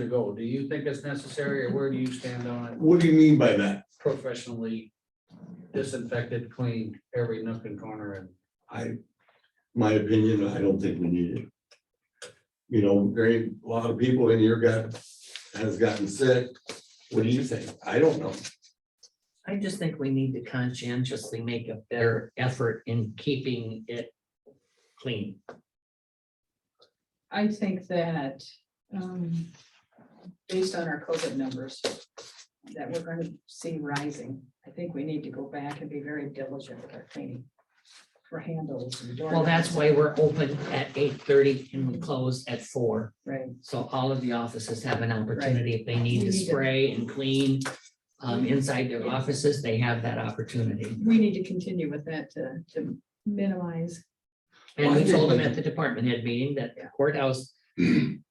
to go. Do you think it's necessary or where do you stand on it What do you mean by that? professionally? Disinfected, cleaned every nook and corner and I, my opinion, I don't think we need it. You know, very, a lot of people in here got, has gotten sick. What do you think? I don't know. I just think we need to conscientiously make a better effort in keeping it clean. I think that, um, based on our COVID numbers that we're gonna see rising, I think we need to go back and be very diligent with our cleaning for handles and doors. Well, that's why we're open at eight thirty and we close at four. Right, So all of the offices have an opportunity. If they need to We need to- spray and clean um, inside their offices, they have that opportunity. we need to continue with that to, to minimize. And we told them at the department head meeting that the courthouse,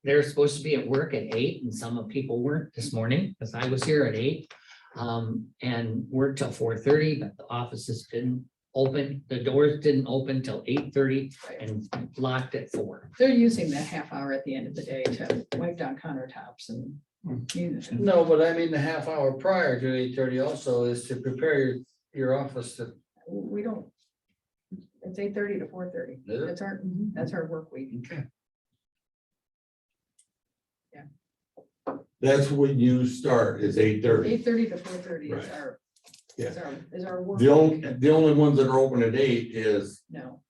they're supposed to be at work at eight and some of people weren't this morning, because I was here at eight. Um, and worked till four thirty, but the offices didn't open, the doors didn't open till eight thirty and locked at four. They're using that half hour at the end of the day to wipe down countertops and. you know, No, but I mean, the half hour prior to eight thirty also is to prepare your, your office to, We don't. It's eight thirty to four thirty. Is it? That's our, that's our work week. That's when you start is eight thirty. Eight thirty to four thirty is Right. our, Yeah. is our, is our work. The only, week. the only ones that are open at eight is, No,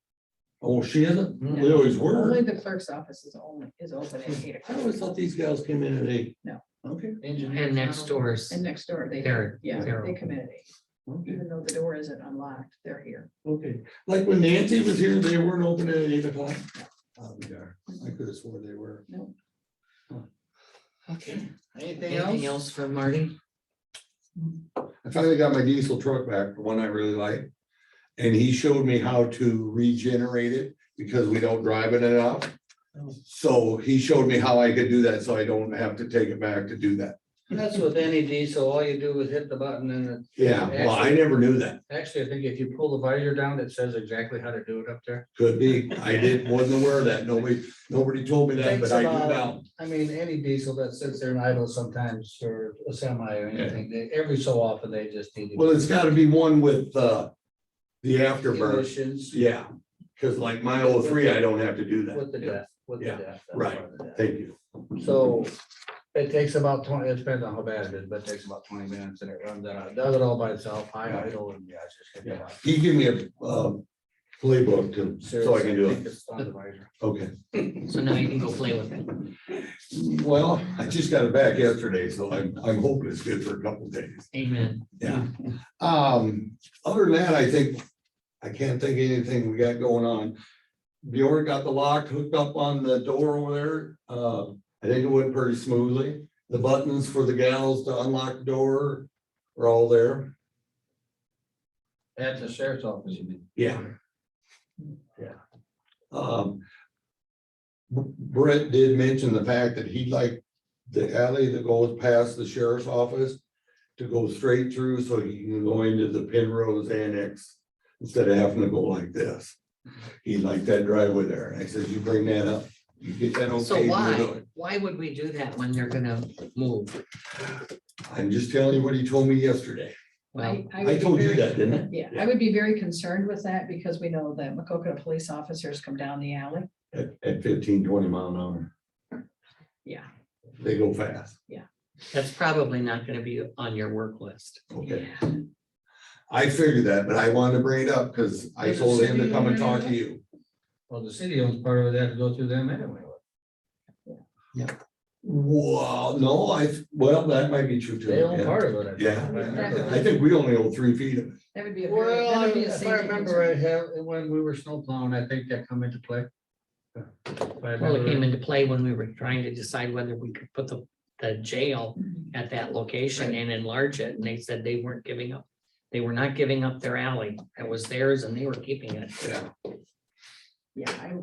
oh, she isn't? Mm. They always were. only the clerk's office is only, is open at eight I always o'clock. thought these gals came in at eight. No. Okay, And next doors, And next door, they, They're- yeah, they're they come in at eight, okay, even though the door isn't unlocked, they're here. okay. Like when Nancy was here, they weren't open at eight o'clock. Oh, they are. I could have sworn they were. No, okay. Anything else? Anything else for Marty? I finally got my diesel truck back, the one I really like. And he showed me how to regenerate it because we don't drive it enough. So he showed me how I could do that, so I don't have to take it back to do that. That's with any diesel, all you do is hit the button and it, Yeah, well, I never knew that. actually, I think if you pull the visor down, it says exactly how to do it up there. Could be. I didn't, wasn't aware of that. Nobody, nobody told me that, Takes but I do about- now. I mean, any diesel that sits there and idle sometimes or a semi or Yeah. anything, they, every so often they just need. to- Well, it's gotta be one with, uh, the afterburn. Emissions Yeah, cause like my old three, I don't have to do with the that. death, with the Yeah, death. that's right. part of the death. Thank you. So it takes about twenty, it depends on how bad it is, but it takes about twenty minutes and it runs out. It Does it all by itself, high idle and yeah, it's just. gonna be like- He gave me a, um, playbook to, so I can do Seriously, I it. think it's on the visor. Okay. So now you can go play with it. Well, I just got it back yesterday, so I'm, I'm hoping it's good for a couple days. Amen. Yeah. Um, other than that, I think, I can't think of anything we got going on. Bjorn got the lock hooked up on the door over there. Uh, I think it went pretty smoothly. The buttons for the gals to unlock the door are all there. At the sheriff's office, you mean? Yeah. Yeah. Um. Brett did mention the fact that he'd like the alley that goes past the sheriff's office to go straight through so he can go into the Penrose Annex instead of having to go like this. He liked that driveway there. And I said, you bring that up, you get that okay. So we'll do why, it." why would we do that when they're gonna move? I'm just telling you what he told me yesterday. Well, I, I I would be told you very- that, didn't I? Yeah, I would be very concerned with that because we know that Macocota police officers come down the alley. At, at 15, 20 mile an hour. Yeah. They go fast. that's probably not gonna be on your work list. Okay. I figured that, but I wanted to bring it up because I Does the told him to city come and own talk it? to you. Well, the city owns part of it, they have to go through them anyway. Wow, no, I, well, that might be true too. They own yeah. part of it. I think, Yeah. if I remember I right. think we only own three feet of it. That would be a very, that Well, would be a if I safety remember right, concern. have, when we were snow plowing, I think that come into play. If I Well, it came remember- into play when we were trying to decide whether we could put the, the jail at that location and enlarge it, and they said they weren't giving up. They were not giving up their alley. It was theirs and they were keeping it. Yeah. Yeah, I,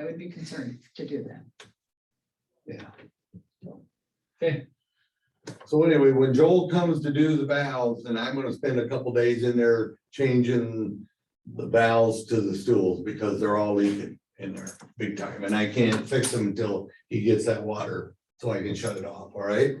I would be concerned to do that. So anyway, when Joel comes to do the valves, and I'm gonna spend a couple days in there changing the valves to the stools because they're all leaking in there big time, and I can't fix them until he gets that water so I can shut it off, all right?